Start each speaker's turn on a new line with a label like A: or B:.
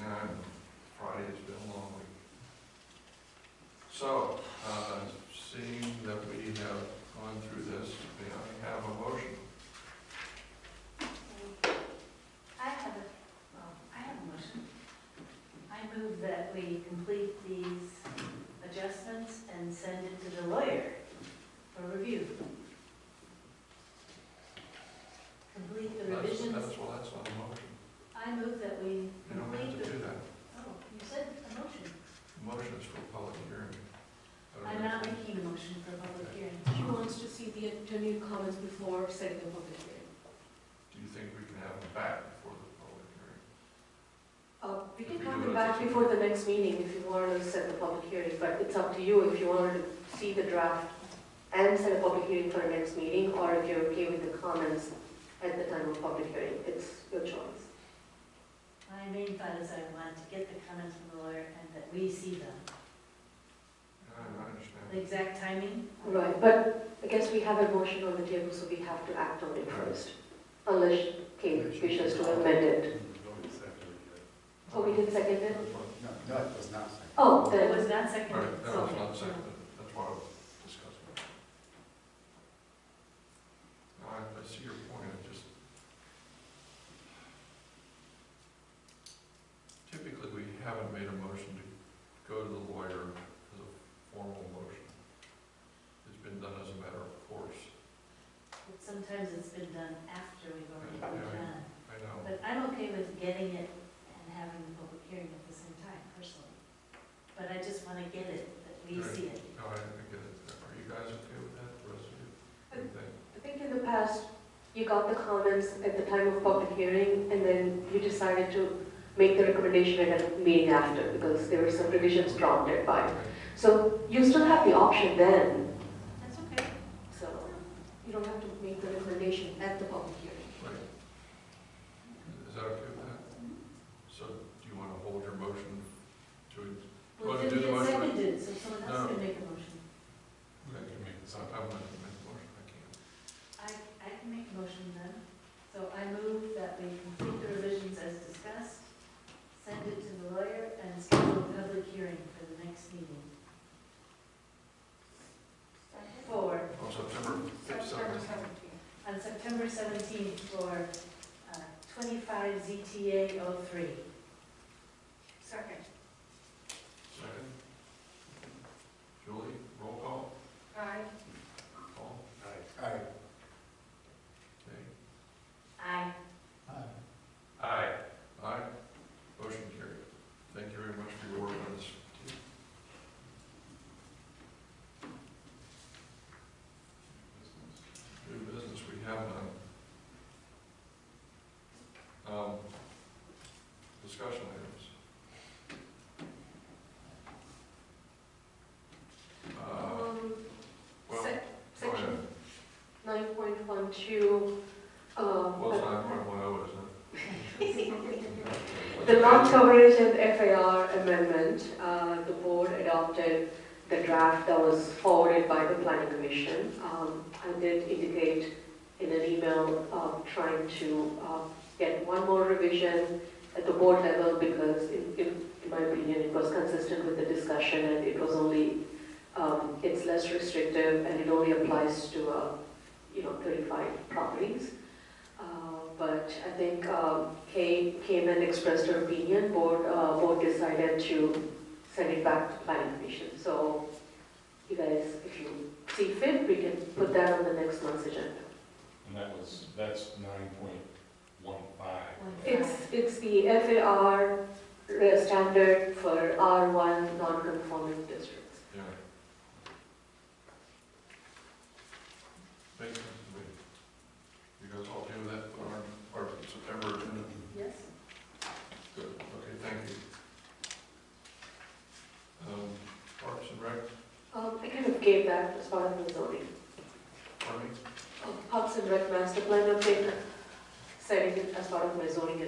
A: uh,
B: that we complete these adjustments and send it to the lawyer for review. Complete the
A: That's,
B: revisions.
A: that's, well, that's not a motion.
B: I move that we
A: You don't have
B: complete
A: to
B: the,
A: do that.
B: oh, you said a motion.
A: Motion is for a public hearing. I don't
B: I'm not
A: know.
B: making a motion for a public hearing.
C: She wants to see the attorney comments before setting the public hearing.
A: Do you think we can have them back before the public hearing?
C: Uh, We
A: If
C: can
A: we
C: have
A: do
C: it
A: it
C: back
A: as a-
C: before the next meeting if you want to set the public hearing, but it's up to you if you want to see the draft and set a public hearing for the next meeting, or if you're okay with the comments at the time of public hearing. It's your choice.
B: My main thought is I want to get the comments from the lawyer and that we see them.
A: Yeah, I understand.
B: The exact timing?
C: Right, but I guess we have a motion on the table, so we have to act on it first, unless Kate wishes to amend it. Oh, we did second it?
D: No, no, it was not seconded.
C: Oh,
B: That
C: then,
B: was not
A: All
B: seconded.
A: right, that was
B: so-
A: not seconded, that's why I was discussing. it. No, I, I see your point, I just. Typically, we haven't made a motion to go to the lawyer as a formal motion. It's been done as a matter of course,
B: But Sometimes it's been done after we've already
A: Yeah.
B: done.
A: I know.
B: But I'm okay with getting it and having the public hearing at the same time personally. But I just want to get it, that we
A: Right.
B: see it.
A: No, I I get it. Are you guys okay with that, the rest of you? What do you think?
C: I think in the past, you got the comments at the time of public hearing, and then you decided to make the recommendation at a meeting after, because there were some revisions prompted by it.
A: Okay.
C: So you still have the option then,
B: That's okay.
C: so you don't have to make the recommendation at the public hearing.
A: Right. Is that okay with that? So do you want to hold your motion to,
B: Well,
A: Wanna do
B: it
A: the
B: didn't get
A: motion?
B: seconded, so someone else
A: No.
B: can make a motion.
A: I can make this, I'm not going to make a motion, I can't.
B: I, I can make a motion then. So I move that we complete the revisions as discussed, send it to the lawyer, and schedule a public hearing for the next meeting. For,
A: On Oh, September fifth, seventh,
B: on September 17th for uh, 25 ZTA 03.
C: Second.
A: second. Julie, roll call,
C: Aye.
A: call,
D: Aye.
A: okay.
B: Aye.
D: Aye.
A: Aye. Aye, motion carried. Thank you very much for your work on this. New business, we have none. Um, Discussion items. Uh,
C: Um,
A: Well, go
C: sec-
A: ahead.
C: section nine point one two, um.
A: Well, it's nine point one oh, isn't it?
C: The lot coverage and FAR amendment, uh, the board adopted the draft that was forwarded by the planning commission. Um, I did indicate in an email of trying to uh, get one more revision at the board level because in, in in my opinion, it was consistent with the discussion and it was only, um, it's less restrictive and it only applies to, uh, you know, 35 properties. Uh, But I think um, Kay came and expressed her opinion, board, uh, board decided to send it back to planning commission. So you guys, if you see fit, we can put that on the next month's agenda.
E: And that was, that's nine point one five.
C: It's, it's the FAR re- uh, standard for R1 non-conforming districts.
A: Yeah. Thank you, Mr. Lee. You guys all do that for our, our September agenda?
B: Yes?
A: Good, okay, thank you. Um, Parks and Rec,
C: Um, I kind of gave that as part of the zoning.
A: Army?
C: Oh, Parks and Rec master plan update, setting it as part of my zoning